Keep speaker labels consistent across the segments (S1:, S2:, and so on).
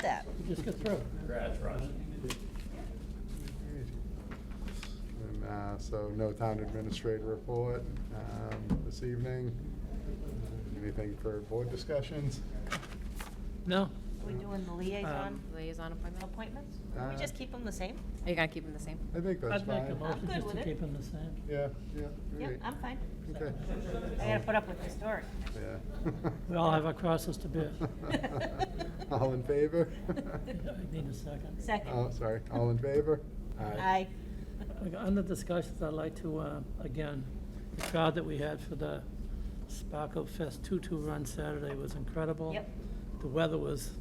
S1: that.
S2: Just get through.
S3: Congrats, Ron.
S4: And uh, so no town administrator report um, this evening. Anything for board discussions?
S2: No,
S1: Are we doing the liaison
S2: Um,
S5: Liaison appointment?
S1: appointments? Can we
S4: Uh,
S1: just keep them the same?
S5: Are you gonna keep them the same?
S4: I think that's
S2: I'd make a
S4: fine.
S2: motion
S1: good
S2: just to
S1: with it.
S2: keep them the same.
S4: Yeah, yeah.
S1: Yeah,
S4: great.
S1: I'm fine.
S4: Okay.
S1: I gotta put up with this story.
S4: Yeah.
S2: We all have our crosses to bear.
S4: All in favor?
S2: I need a second.
S4: Oh,
S1: Second.
S4: sorry, all in favor?
S1: Aye.
S2: Okay, Under discussions, I'd like to, uh, again, the crowd that we had for the Sparkle Fest two-two run Saturday was incredible.
S1: Yep.
S2: The weather was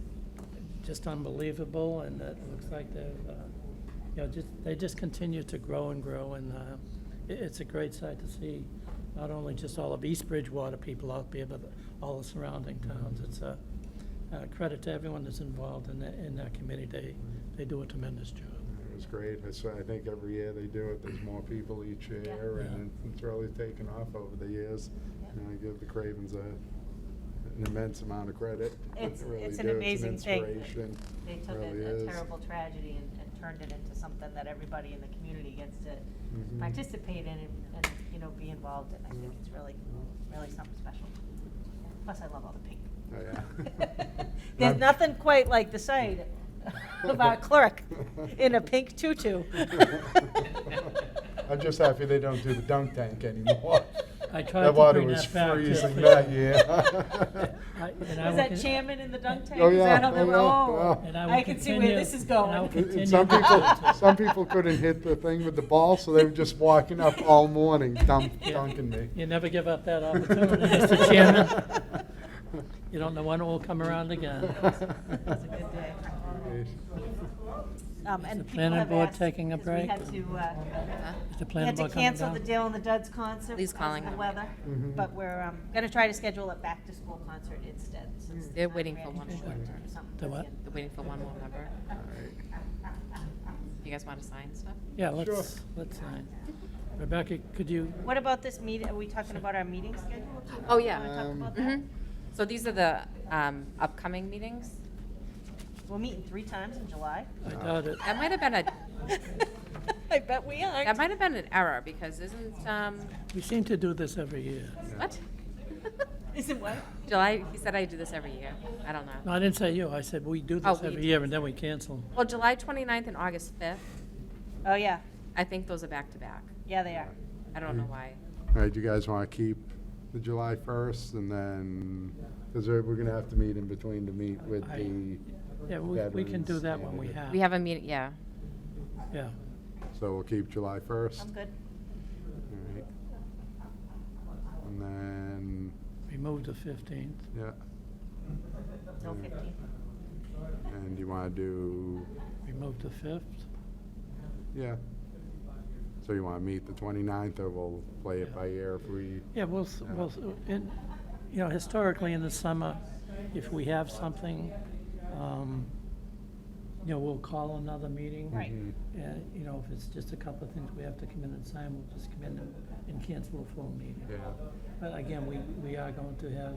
S2: just unbelievable, and it looks like they've, uh, you know, just, they just continue to grow and grow, and uh, it, it's a great sight to see, not only just all of East Bridgewater people out there, but all the surrounding
S4: Mm-hmm.
S2: towns. It's a a credit to everyone that's involved in that, in that committee. They, they do a tremendous job.
S4: It was great. It's, I think every year they do it, there's more people each year, and it's really taken off over the years.
S1: Yeah.
S4: And I give the Cravens a, an immense amount of credit. They
S1: It's,
S4: really
S1: it's an
S4: do.
S1: amazing thing.
S4: inspiration.
S1: They took
S4: Really
S1: a- a
S4: is.
S1: terrible tragedy and, and turned it into something that everybody in the community gets to
S4: Mhm.
S1: participate in and, and, you know, be involved in. I think
S4: Yeah.
S1: it's really,
S4: Mm-hmm.
S1: really something special. Plus, I love all the pink.
S4: Oh, yeah.
S1: There's
S4: I'm-
S1: nothing quite like the sight of our clerk in a pink tutu.
S4: I'm just happy they don't do the dunk tank anymore.
S2: I tried
S4: That
S2: to
S4: water
S2: bring
S4: was
S2: that back to-
S4: freezing that year.
S2: I-
S1: Was
S2: and I will
S1: that
S2: con-
S1: chairman in the dunk tank?
S4: Oh,
S1: Is
S4: yeah.
S1: that on the
S4: Oh, yeah.
S1: roll?
S4: Yeah.
S2: And I will
S1: can see where
S2: continue-
S1: this is going.
S2: and I will
S4: And
S2: continue
S4: Some people,
S2: to-
S4: some people couldn't hit the thing with the ball, so they were just walking up all morning dunk,
S1: Yeah.
S4: dunking me.
S2: You never give up that opportunity, Mr. Chairman. You don't know when it will come around again.
S1: That's a good day. Um,
S2: Is
S1: and
S2: the
S1: people
S2: planning
S1: have
S2: board
S1: asked,
S2: taking a
S1: 'cause
S2: break?
S1: We had to, uh,
S5: Huh?
S2: Is the
S1: we
S2: planning
S1: had to
S2: board coming
S1: cancel the
S2: down?
S1: Dale and the Duds concert.
S5: Lee's
S1: because of
S5: calling
S1: The
S5: them.
S1: weather,
S4: Mhm.
S1: but we're, um, gonna try to schedule a back-to-school concert instead, since.
S5: They're
S1: it's not
S5: waiting for
S1: ran
S5: one
S1: short
S5: more.
S1: or something.
S2: The what?
S5: They're waiting for one more member. You guys wanna sign stuff?
S2: Yeah,
S4: Sure.
S2: let's, let's sign. Rebecca, could you,
S1: What about this meet, are we talking about our meeting schedule?
S5: Oh,
S1: Do you
S5: yeah.
S1: wanna
S4: Um,
S1: talk about that?
S5: Mhm. So these are the, um, upcoming meetings?
S1: We're meeting three times in July.
S2: I doubt it.
S5: That might have been a,
S1: I bet we
S5: that
S1: aren't.
S5: might have been an error, because isn't, um,
S2: We seem to do this every year.
S5: what?
S1: Is it what?
S5: July, he said I do this every year. I don't know.
S2: No, I didn't say you, I said we do this
S5: Oh, we
S2: every
S5: do
S2: year and then we cancel.
S5: Well, July 29th and August fifth,
S1: Oh, yeah,
S5: I think those are back-to-back.
S1: yeah, they are.
S5: I don't know why.
S4: All right, do you guys want to keep the July 1st and then, because we're going to have to meet in between to meet with
S2: I-
S4: the,
S2: Yeah, we, we can do
S4: Veterans
S2: that when we
S4: Day.
S2: have.
S5: We have a meeting, yeah.
S2: Yeah.
S4: so we'll keep July 1st.
S1: I'm good.
S4: All right. And then,
S2: We moved the fifteenth.
S4: yeah,
S1: No
S4: Yeah.
S1: fifteen.
S4: and you want to do,
S2: We moved the fifth.
S4: yeah. So you want to meet the 29th or we'll play it
S2: Yeah.
S4: by ear if we,
S2: Yeah, we'll, s-
S4: Yeah.
S2: we'll, s- in, you know, historically in the summer, if we have something, um, you know, we'll call another meeting.
S1: Right.
S4: Mhm.
S2: And, you know, if it's just a couple of things we have to come in and sign, we'll just come in and- and cancel a full meeting.
S4: yeah.
S2: But again, we, we are going to have,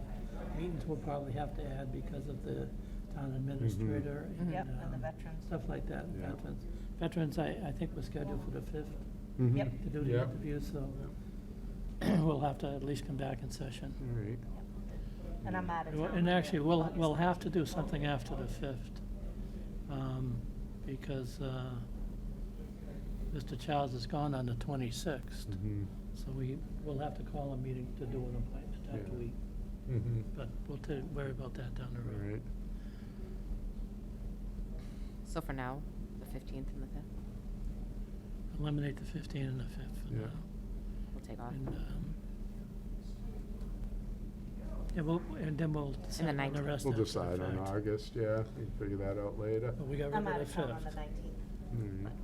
S2: meetings we'll probably have to add because of the town administrator and.
S1: Mm-hmm. Yep, and the
S2: um,
S1: veterans.
S2: Stuff like that, and
S4: Mm-hmm. Yeah.
S2: veterans. Veterans, I, I think was scheduled for the fifth
S4: Mhm.
S1: Yep.
S2: to do the
S4: Yeah.
S2: interview, so we'll have to at least come back in session.
S4: All right.
S1: And I'm out of
S2: Well,
S1: town.
S2: And actually, we'll, we'll have to do something after the fifth, um, because, uh, Mr. Childs is gone on the twenty-sixth,
S4: Mhm.
S2: so we, we'll have to call a meeting to do an appointment after
S4: Yeah.
S2: we,
S4: Mhm.
S2: but we'll ta- worry about that down the
S4: All
S2: road.
S4: right.
S5: So for now, the 15th and the 5th,
S2: Eliminate the fifteenth and the fifth for
S4: Yeah.
S2: now.
S5: we'll take off.
S2: And, um, and we'll, and then we'll decide on the
S5: 19th.
S2: rest
S4: We'll
S2: after the
S4: decide on
S2: fact.
S4: August, yeah, we can figure that out later.
S2: But we got
S1: I'm
S2: rid
S1: out
S2: of the
S1: of town on the
S2: fifth
S1: nineteenth.
S4: Alright.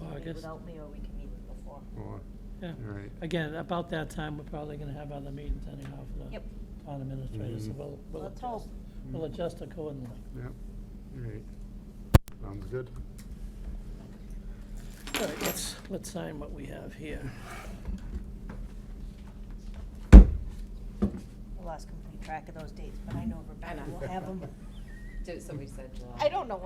S2: of August.
S1: Without me, or we can meet before.
S4: Or-
S2: Yeah.
S4: Alright.
S2: Again, about that time, we're probably gonna have other meetings anyhow for the
S1: Yep.
S2: town administrator, so
S4: Mhm.
S2: we'll, we'll
S1: Let's hope.
S2: adjust, we'll adjust accordingly.
S4: Yep, alright. Sounds good.
S2: All right, let's, let's sign what we have here.
S1: I lost complete track of those dates, but I know Rebecca will have them.
S6: Did- Somebody said July.
S5: I don't know